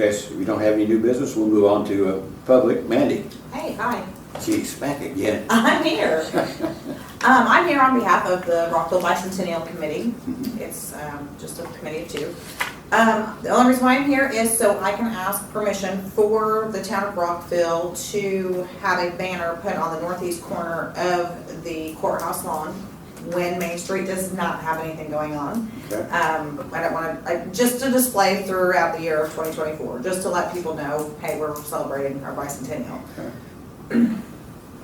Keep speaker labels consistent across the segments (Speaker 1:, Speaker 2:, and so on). Speaker 1: Yes, if we don't have any new business, we'll move on to uh, public. Mandy,
Speaker 2: Hey, hi,
Speaker 1: geez, back again.
Speaker 2: I'm here. Um, I'm here on behalf of the Rockville Bicentennial Committee. It's, um, just a committee of two. Um, the only reason why I'm here is so I can ask permission for the town of Rockville to have a banner put on the northeast corner of the courthouse lawn when Main Street does not have anything going on.
Speaker 1: Okay.
Speaker 2: Um, I don't wanna, like, just to display throughout the year of twenty twenty-four, just to let people know, hey, we're celebrating our bicentennial.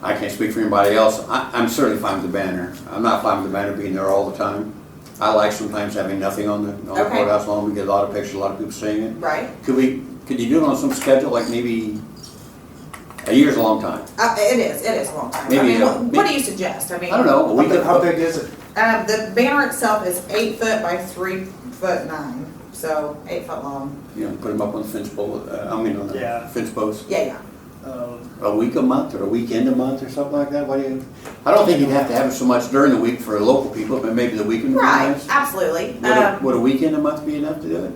Speaker 1: I can't speak for anybody else. I, I'm certainly fine with the banner. I'm not fine with the banner being there all the time. I like sometimes having nothing on the, on the
Speaker 2: Okay.
Speaker 1: courthouse lawn. We get a lot of pictures, a lot of people seeing it.
Speaker 2: Right?
Speaker 1: Could we, could you do it on some schedule, like maybe, a year's a long time?
Speaker 2: Uh, it is, it is a long time. I
Speaker 1: Maybe,
Speaker 2: mean,
Speaker 1: uh,
Speaker 2: what, what do you suggest? I mean.
Speaker 1: I don't know, a
Speaker 3: How
Speaker 1: week,
Speaker 3: big, how big is it?
Speaker 2: Um, the banner itself is eight foot by three foot nine, so eight foot long.
Speaker 1: you know, put them up on the fence pole, uh, I mean, on the
Speaker 3: Yeah.
Speaker 1: fence posts.
Speaker 2: Yeah, yeah.
Speaker 3: Um,
Speaker 1: a week a month or a weekend a month or something like that? What do you, I don't think you'd have to have it so much during the week for local people, but maybe the weekend would be
Speaker 2: Right,
Speaker 1: nice.
Speaker 2: absolutely.
Speaker 1: Would a,
Speaker 2: Um,
Speaker 1: would a weekend a month be enough to do it?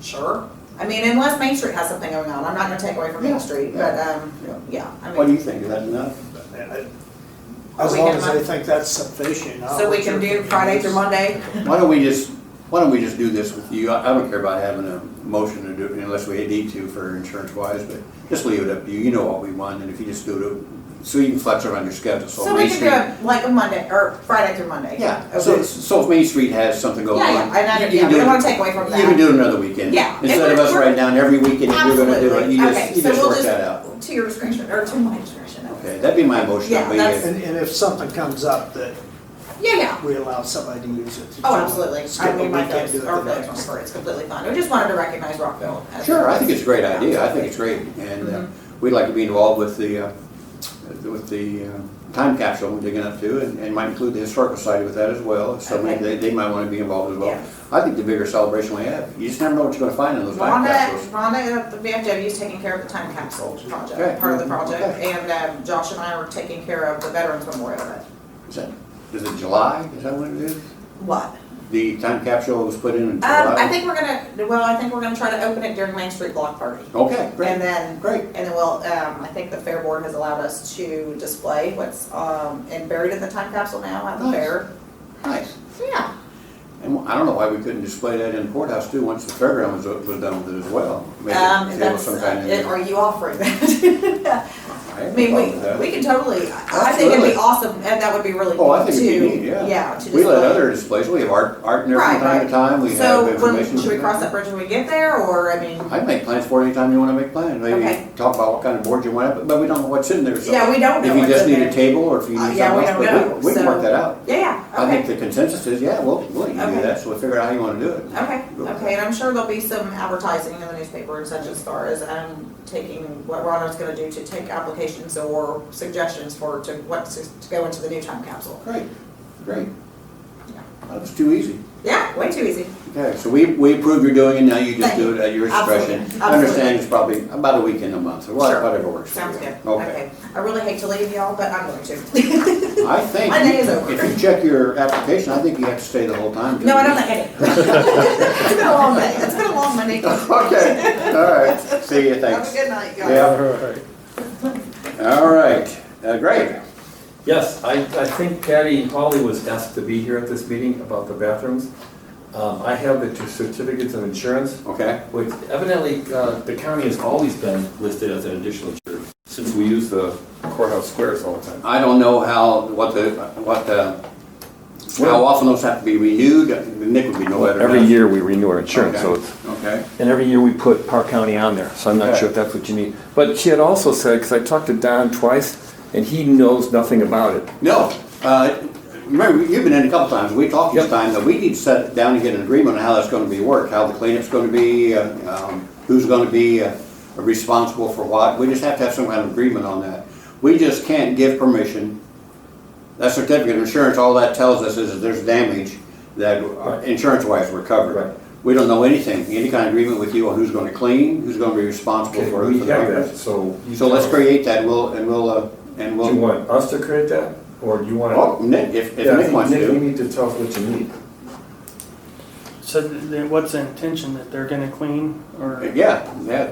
Speaker 2: sure. I mean, unless Main Street has something going on, I'm not gonna take away from
Speaker 1: Yeah,
Speaker 2: Main Street, but, um,
Speaker 1: Yeah.
Speaker 2: yeah, I
Speaker 1: What do
Speaker 2: mean,
Speaker 1: you think, is that enough?
Speaker 3: I- I-
Speaker 2: Are
Speaker 3: As
Speaker 2: we
Speaker 3: long
Speaker 2: gonna
Speaker 3: as I
Speaker 2: mon-
Speaker 3: think that's sufficient. not
Speaker 2: so we
Speaker 3: what
Speaker 2: can do
Speaker 3: you're
Speaker 2: Friday through
Speaker 3: thinking.
Speaker 2: Monday.
Speaker 1: Why don't we just, why don't we just do this with you? I I don't care about having a motion to do it unless we need to for insurance wise, but just leave it up to you. You know what we want, and if you just do it, so you can flex around your schedule, so. Main
Speaker 2: So we can do
Speaker 1: Street-
Speaker 2: it like a Monday, or Friday through Monday.
Speaker 1: Yeah, so,
Speaker 2: Okay.
Speaker 1: so if Main Street has something going on.
Speaker 2: Yeah, yeah, I know,
Speaker 1: you
Speaker 2: yeah,
Speaker 1: can
Speaker 2: we
Speaker 1: do
Speaker 2: don't
Speaker 1: it.
Speaker 2: wanna take away from that.
Speaker 1: You can do it another weekend.
Speaker 2: Yeah.
Speaker 1: Instead of us writing down every weekend that you're gonna do it, you
Speaker 2: Absolutely.
Speaker 1: just, you
Speaker 2: Okay,
Speaker 1: just
Speaker 2: so we'll
Speaker 1: work
Speaker 2: just-
Speaker 1: that out.
Speaker 2: To your discretion, or to my discretion.
Speaker 1: Okay, that'd be my motion,
Speaker 2: Yeah,
Speaker 1: but
Speaker 2: that's-
Speaker 3: And, and if something comes up that
Speaker 2: Yeah, yeah.
Speaker 3: we allow somebody to use it. to
Speaker 2: Oh,
Speaker 3: do it,
Speaker 2: absolutely.
Speaker 3: skip
Speaker 2: I
Speaker 3: a
Speaker 2: mean, my
Speaker 3: weekend,
Speaker 2: folks
Speaker 3: do it
Speaker 2: our
Speaker 3: the
Speaker 2: folks
Speaker 3: next.
Speaker 2: prefer it. It's completely fine. I just wanted to recognize Rockville. as-
Speaker 1: Sure, I think it's a great idea, I think it's great, and uh,
Speaker 2: Mhm.
Speaker 1: we'd like to be involved with the, uh, with the uh, time capsule we're digging up to, and, and might include the historical society with that as well, so maybe they, they might wanna be involved as well.
Speaker 2: Yeah.
Speaker 1: I think the bigger celebration we have, you just never know what you're gonna find in those time
Speaker 2: Rhonda,
Speaker 1: capsules.
Speaker 2: Rhonda at the VFW is taking care of the time capsule
Speaker 1: Okay.
Speaker 2: project, part of the project,
Speaker 1: Okay.
Speaker 2: and um, Josh and I are taking care of the Veterans Memorial.
Speaker 1: Is that, is it July, is that what it is?
Speaker 2: What?
Speaker 1: The time capsule was put in in
Speaker 2: Um, I
Speaker 1: July?
Speaker 2: think we're gonna, well, I think we're gonna try to open it during Main Street Block Party.
Speaker 1: Okay,
Speaker 2: And
Speaker 1: great,
Speaker 2: then,
Speaker 1: great.
Speaker 2: and then we'll, um, I think the Fair Board has allowed us to display what's, um, and buried in the time capsule now at the
Speaker 1: Nice.
Speaker 2: fair.
Speaker 1: Nice.
Speaker 2: Yeah.
Speaker 1: And I don't know why we couldn't display that in the courthouse too, once the fairground was, was done with it as well. Maybe
Speaker 2: Um,
Speaker 1: table
Speaker 2: if that's,
Speaker 1: some kind
Speaker 2: uh,
Speaker 1: of-
Speaker 2: it- are you offering that?
Speaker 1: I
Speaker 2: I
Speaker 1: have no
Speaker 2: mean,
Speaker 1: problem with that.
Speaker 2: we, we can totally, I I think it'd
Speaker 1: Absolutely.
Speaker 2: be awesome, and that would be really
Speaker 1: Oh,
Speaker 2: cool
Speaker 1: I think it'd be
Speaker 2: too.
Speaker 1: neat, yeah.
Speaker 2: Yeah, to
Speaker 1: We let
Speaker 2: display.
Speaker 1: other displays, we have art, art in there from
Speaker 2: Right,
Speaker 1: time to
Speaker 2: right.
Speaker 1: time, we have
Speaker 2: So, when,
Speaker 1: information.
Speaker 2: should we cross that bridge when we get there, or, I mean,
Speaker 1: I make plans for it anytime you wanna make plans, maybe
Speaker 2: Okay.
Speaker 1: talk about what kind of board you want, but- but we don't know what's in there, so.
Speaker 2: yeah, we don't know
Speaker 1: If you
Speaker 2: what's
Speaker 1: just
Speaker 2: in
Speaker 1: need a
Speaker 2: there.
Speaker 1: table, or if you
Speaker 2: Uh,
Speaker 1: need
Speaker 2: yeah, we
Speaker 1: something else,
Speaker 2: don't
Speaker 1: but
Speaker 2: know,
Speaker 1: we, we can
Speaker 2: so-
Speaker 1: work that out.
Speaker 2: Yeah,
Speaker 1: I
Speaker 2: yeah,
Speaker 1: think
Speaker 2: okay,
Speaker 1: the consensus is, yeah, we'll, we'll let you do
Speaker 2: Okay.
Speaker 1: that, so we'll figure out how you wanna do it.
Speaker 2: okay, okay, and I'm sure there'll be some advertising in the newspaper and such as far as, um, taking, what Rhonda's gonna do to take applications or suggestions for, to what to to go into the new time capsule.
Speaker 1: Great, great. That was too easy.
Speaker 2: Yeah, way too easy.
Speaker 1: Okay, so we, we approve you're doing it, now you just
Speaker 2: Thank
Speaker 1: do it at your
Speaker 2: Absolutely,
Speaker 1: discretion. I
Speaker 2: absolutely.
Speaker 1: understand it's probably about a week in a month, or what-
Speaker 2: Sure.
Speaker 1: whatever works for you.
Speaker 2: Sounds good,
Speaker 1: Okay.
Speaker 2: okay. I really hate to leave y'all, but I'm going to.
Speaker 1: I think,
Speaker 2: My day is
Speaker 1: you-
Speaker 2: over.
Speaker 1: if you check your application, I think you have to stay the whole time.
Speaker 2: No, I don't like it. It's been a long day, it's been a long Monday. Have
Speaker 1: Okay, all right, see you,
Speaker 2: a
Speaker 1: thanks.
Speaker 2: good night, guys.
Speaker 1: Yeah. All right, uh, great.
Speaker 4: Yes, I, I think Patty Holly was asked to be here at this meeting about the bathrooms. Um, I have the two certificates of insurance,
Speaker 1: Okay,
Speaker 4: which evidently, uh, the county has always been listed as an additional insurer since we use the courthouse squares all the time.
Speaker 1: I don't know how, what the, what the, how often those have to be renewed, Nick would be no better.
Speaker 5: Every
Speaker 1: than us.
Speaker 5: year we renew our insurance, so
Speaker 1: Okay,
Speaker 5: it's,
Speaker 1: Okay,
Speaker 5: and every year we put Park County on there, so I'm not sure if that's what you need. But she had also said, because I talked to Don twice, and he knows nothing about it.
Speaker 1: no, uh, remember, you've been in a couple times, we talked this
Speaker 5: Yep.
Speaker 1: time, that we need to sit down and get an agreement on how that's gonna be worked, how the cleanup's gonna be, uh, um, who's gonna be uh, responsible for what, we just have to have some kind of agreement on that. We just can't give permission, that certificate of insurance, all that tells us is that there's damage that insurance wise we're
Speaker 4: Right.
Speaker 1: covered. We don't know anything, any kind of agreement with you on who's gonna clean, who's gonna be responsible
Speaker 4: Okay,
Speaker 1: for.
Speaker 4: we
Speaker 1: for the
Speaker 4: have
Speaker 1: papers.
Speaker 4: that, so. you
Speaker 1: So let's
Speaker 4: tell us.
Speaker 1: create that, we'll, and we'll, uh, and we'll.
Speaker 4: Do you want us to create that, or do you want?
Speaker 1: Oh, Well, Nick, if, if
Speaker 4: Yeah, I
Speaker 1: Nick
Speaker 4: think,
Speaker 1: wants
Speaker 4: Nick, you
Speaker 1: to,
Speaker 4: need to tell us what you need.
Speaker 6: said that what's the intention, that they're gonna clean, or?
Speaker 1: Yeah, yeah,